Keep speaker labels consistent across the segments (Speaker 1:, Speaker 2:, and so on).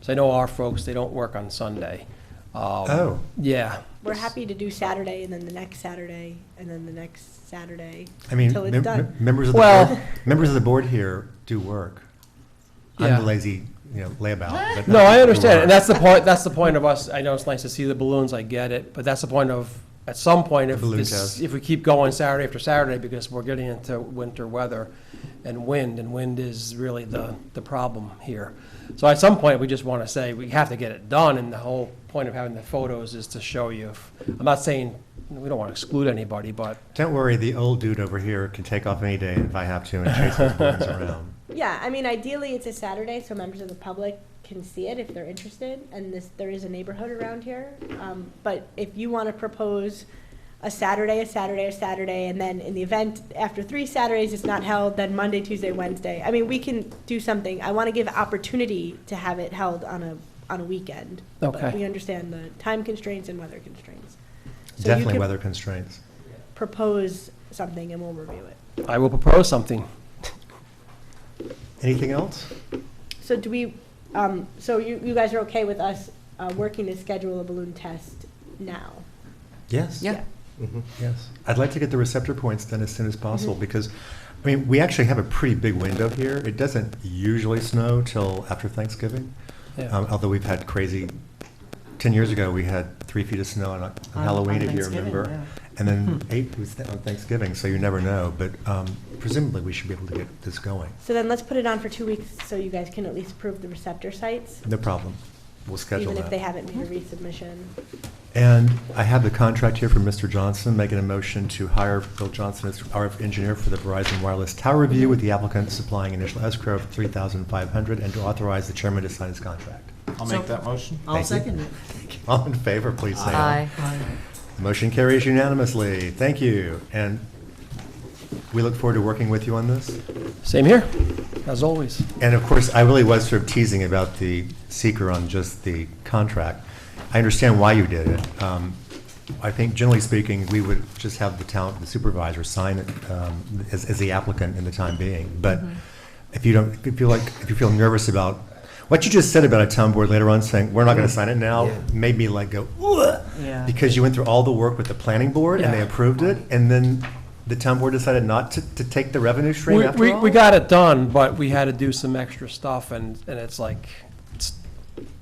Speaker 1: So I know our folks, they don't work on Sunday. Um,
Speaker 2: Oh.
Speaker 1: Yeah.
Speaker 3: We're happy to do Saturday and then the next Saturday and then the next Saturday.
Speaker 2: Oh, I mean,
Speaker 3: Till it's
Speaker 2: mem-
Speaker 3: done.
Speaker 2: members of the
Speaker 1: Well-
Speaker 2: board, members of the board here do work. I'm
Speaker 1: Yeah.
Speaker 2: the lazy, you know, layabout. but
Speaker 1: No,
Speaker 2: not
Speaker 1: I
Speaker 2: the
Speaker 1: understand, and
Speaker 2: work.
Speaker 1: that's the point, that's the point of us, I know it's nice to see the balloons, I get it, but that's the point of, at some point, if
Speaker 2: The balloon
Speaker 1: this,
Speaker 2: test.
Speaker 1: if we keep going Saturday after Saturday, because we're getting into winter weather and wind, and wind is really the, the problem here. So at some point, we just want to say, we have to get it done, and the whole point of having the photos is to show you. if- I'm not saying, we don't want to exclude anybody, but
Speaker 2: Don't worry, the old dude over here can take off any day if I have to and chase those balloons around.
Speaker 3: Yeah, I mean, ideally, it's a Saturday, so members of the public can see it if they're interested, and this, there is a neighborhood around here. Um, But if you want to propose a Saturday, a Saturday, a Saturday, and then in the event, after three Saturdays, it's not held, then Monday, Tuesday, Wednesday, I mean, we can do something. I want to give opportunity to have it held on a, on a weekend. But
Speaker 1: Okay.
Speaker 3: we understand the time constraints and weather constraints. So you
Speaker 2: Definitely
Speaker 3: can
Speaker 2: weather constraints.
Speaker 3: Propose something and we'll review it.
Speaker 1: I will propose something.
Speaker 2: Anything else?
Speaker 3: So do we, um, so you, you guys are okay with us, uh, working to schedule a balloon test now?
Speaker 2: Yes.
Speaker 4: Yeah.
Speaker 2: Yes. I'd like to get the receptor points done as soon as possible because, I mean, we actually have a pretty big window here. It doesn't usually snow till after Thanksgiving.
Speaker 1: Yeah.
Speaker 2: Um, although we've had crazy, ten years ago, we had three feet of snow on, on
Speaker 4: On-
Speaker 2: Halloween,
Speaker 4: on
Speaker 2: if you
Speaker 4: Thanksgiving,
Speaker 2: remember.
Speaker 4: yeah.
Speaker 2: And then eight was th- on Thanksgiving, so you never know, but, um, presumably we should be able to get this going.
Speaker 3: So then let's put it on for two weeks so you guys can at least approve the receptor sites,
Speaker 2: No problem. We'll schedule
Speaker 3: even
Speaker 2: that.
Speaker 3: if they haven't made a resubmission.
Speaker 2: And I have the contract here from Mr. Johnson, making a motion to hire Bill Johnson as our engineer for the Verizon Wireless Tower Review with the applicant supplying initial escrow of three thousand five hundred and to authorize the chairman to sign his contract.
Speaker 5: I'll
Speaker 4: So-
Speaker 5: make that motion.
Speaker 4: I'll
Speaker 2: Thank you.
Speaker 4: second it.
Speaker 2: All in favor, please say aye.
Speaker 4: Aye.
Speaker 2: Motion carries unanimously. Thank you. And we look forward to working with you on this.
Speaker 1: Same here, as always.
Speaker 2: And of course, I really was sort of teasing about the seeker on just the contract. I understand why you did it. Um, I think generally speaking, we would just have the town, the supervisor sign it um, as, as the applicant in the time being. But
Speaker 1: Mm-hmm.
Speaker 2: if you don't, if you feel like, if you feel nervous about, what you just said about a town board later on saying, we're not going to sign it now, made me like go, "Ugh,"
Speaker 4: Yeah.
Speaker 2: because you went through all the work with the planning board and they
Speaker 1: Yeah.
Speaker 2: approved it, and then the town board decided not to, to take the revenue stream
Speaker 1: We,
Speaker 2: after
Speaker 1: we,
Speaker 2: all?
Speaker 1: we got it done, but we had to do some extra stuff, and, and it's like, it's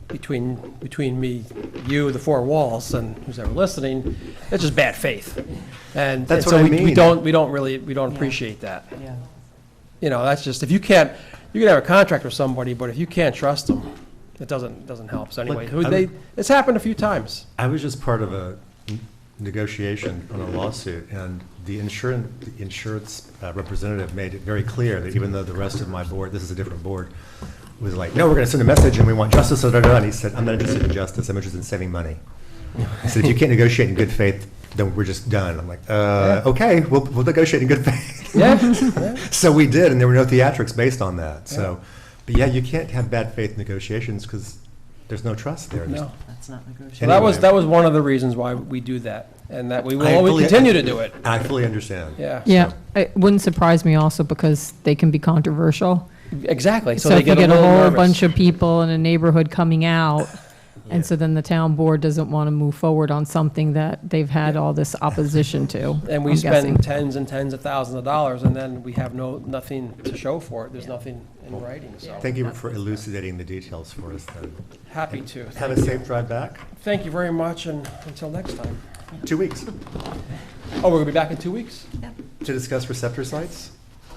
Speaker 1: between, between me, you, the four walls, and who's ever listening, it's just bad faith. And and
Speaker 2: That's
Speaker 1: so
Speaker 2: what
Speaker 1: we
Speaker 2: I
Speaker 1: we
Speaker 2: mean.
Speaker 1: don't, we don't really, we don't
Speaker 4: Yeah.
Speaker 1: appreciate that.
Speaker 4: Yeah.
Speaker 1: You know, that's just, if you can't, you can have a contract with somebody, but if you can't trust them, it doesn't, doesn't help. So anyway,
Speaker 2: Look,
Speaker 1: who
Speaker 2: I'm-
Speaker 1: they, it's happened a few times.
Speaker 2: I was just part of a n- negotiation on a lawsuit, and the insurance, the insurance uh, representative made it very clear that even though the rest of my board, this is a different board, was like, no, we're gonna send a message and we want justice, da, da, da," and he said, I'm not interested in justice, I'm interested in saving money. He said, if you can't negotiate in good faith, then we're just done. I'm like, uh, okay, we'll, we'll negotiate in good faith.
Speaker 1: Yeah, yeah.
Speaker 2: So we did, and there were no theatrics based on that, so, but yeah, you can't have bad faith negotiations, because there's no trust there. There's-
Speaker 1: No.
Speaker 4: That's not
Speaker 1: So
Speaker 4: negotiable.
Speaker 1: that was,
Speaker 2: Anyway.
Speaker 1: that was one of the reasons why we do that, and that we will
Speaker 2: I
Speaker 1: always
Speaker 2: fully-
Speaker 1: continue to do it.
Speaker 2: I fully understand.
Speaker 1: Yeah.
Speaker 6: Yeah,
Speaker 2: So-
Speaker 6: it wouldn't surprise me also because they can be controversial.
Speaker 1: Exactly. So,
Speaker 6: So
Speaker 1: they
Speaker 6: if you
Speaker 1: get,
Speaker 6: get
Speaker 1: a,
Speaker 6: a
Speaker 1: little
Speaker 6: whole
Speaker 1: nervous.
Speaker 6: bunch of people in a neighborhood coming out, and so then the town board doesn't want to move forward on something that they've had all this opposition to.
Speaker 1: and we
Speaker 6: I'm
Speaker 1: spend
Speaker 6: guessing.
Speaker 1: tens and tens of thousands of dollars, and then we have no nothing to show for it. There's nothing in writing. So
Speaker 2: Thank you for elucidating the details for us then.
Speaker 1: happy to.
Speaker 2: Have a safe drive back.
Speaker 1: Thank you very much, and until next time.
Speaker 2: Two weeks
Speaker 1: Oh, we're gonna be back in two weeks.
Speaker 2: to discuss receptor sites,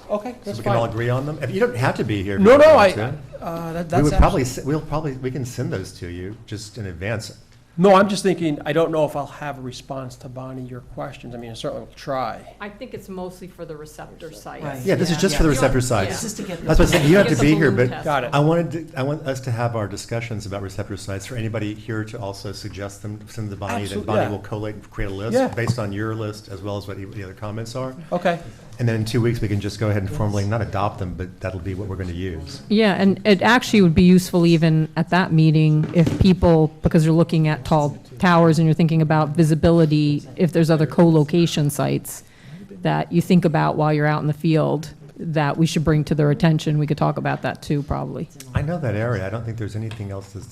Speaker 1: Okay,
Speaker 2: so
Speaker 1: that's
Speaker 2: we can all
Speaker 1: fine.
Speaker 2: agree on them. If You don't have to be here. if
Speaker 1: No,
Speaker 2: you don't
Speaker 1: no, I.
Speaker 2: want to.
Speaker 1: Uh, that,
Speaker 2: We
Speaker 1: that's
Speaker 2: would
Speaker 1: actually-
Speaker 2: probably, s- we'll probably, we can send those to you just in advance.
Speaker 1: No, I'm just thinking. I don't know if I'll have a response to Bonnie your questions. I mean, I certainly will try.
Speaker 7: I think it's mostly for the receptor
Speaker 4: Right.
Speaker 7: sites.
Speaker 2: Yeah, this is
Speaker 4: Yeah.
Speaker 2: just for the
Speaker 4: Yeah.
Speaker 2: receptor
Speaker 4: It's
Speaker 2: sites.
Speaker 4: just to get.
Speaker 2: That's what I said, you don't have
Speaker 7: Get
Speaker 2: to
Speaker 7: the
Speaker 2: be here,
Speaker 7: balloon
Speaker 2: but
Speaker 7: test.
Speaker 1: Got it.
Speaker 2: I wanted, to- I want us to have our discussions about receptor sites for anybody here to also suggest them, send them to Bonnie. Then
Speaker 1: Absolute-
Speaker 2: Bonnie
Speaker 1: yeah.
Speaker 2: will collate, and create a
Speaker 1: Yeah.
Speaker 2: list based on your list as well as what the other comments are.
Speaker 1: Okay.
Speaker 2: And then in two weeks, we can just go ahead and formally, not adopt them, but that'll be what we're going to use.
Speaker 6: Yeah, and it actually would be useful even at that meeting if people, because you're looking at tall towers and you're thinking about visibility, if there's other co-location sites that you think about while you're out in the field, that we should bring to their attention. We could talk about that too, probably.
Speaker 2: I know that area. I don't think there's anything else that's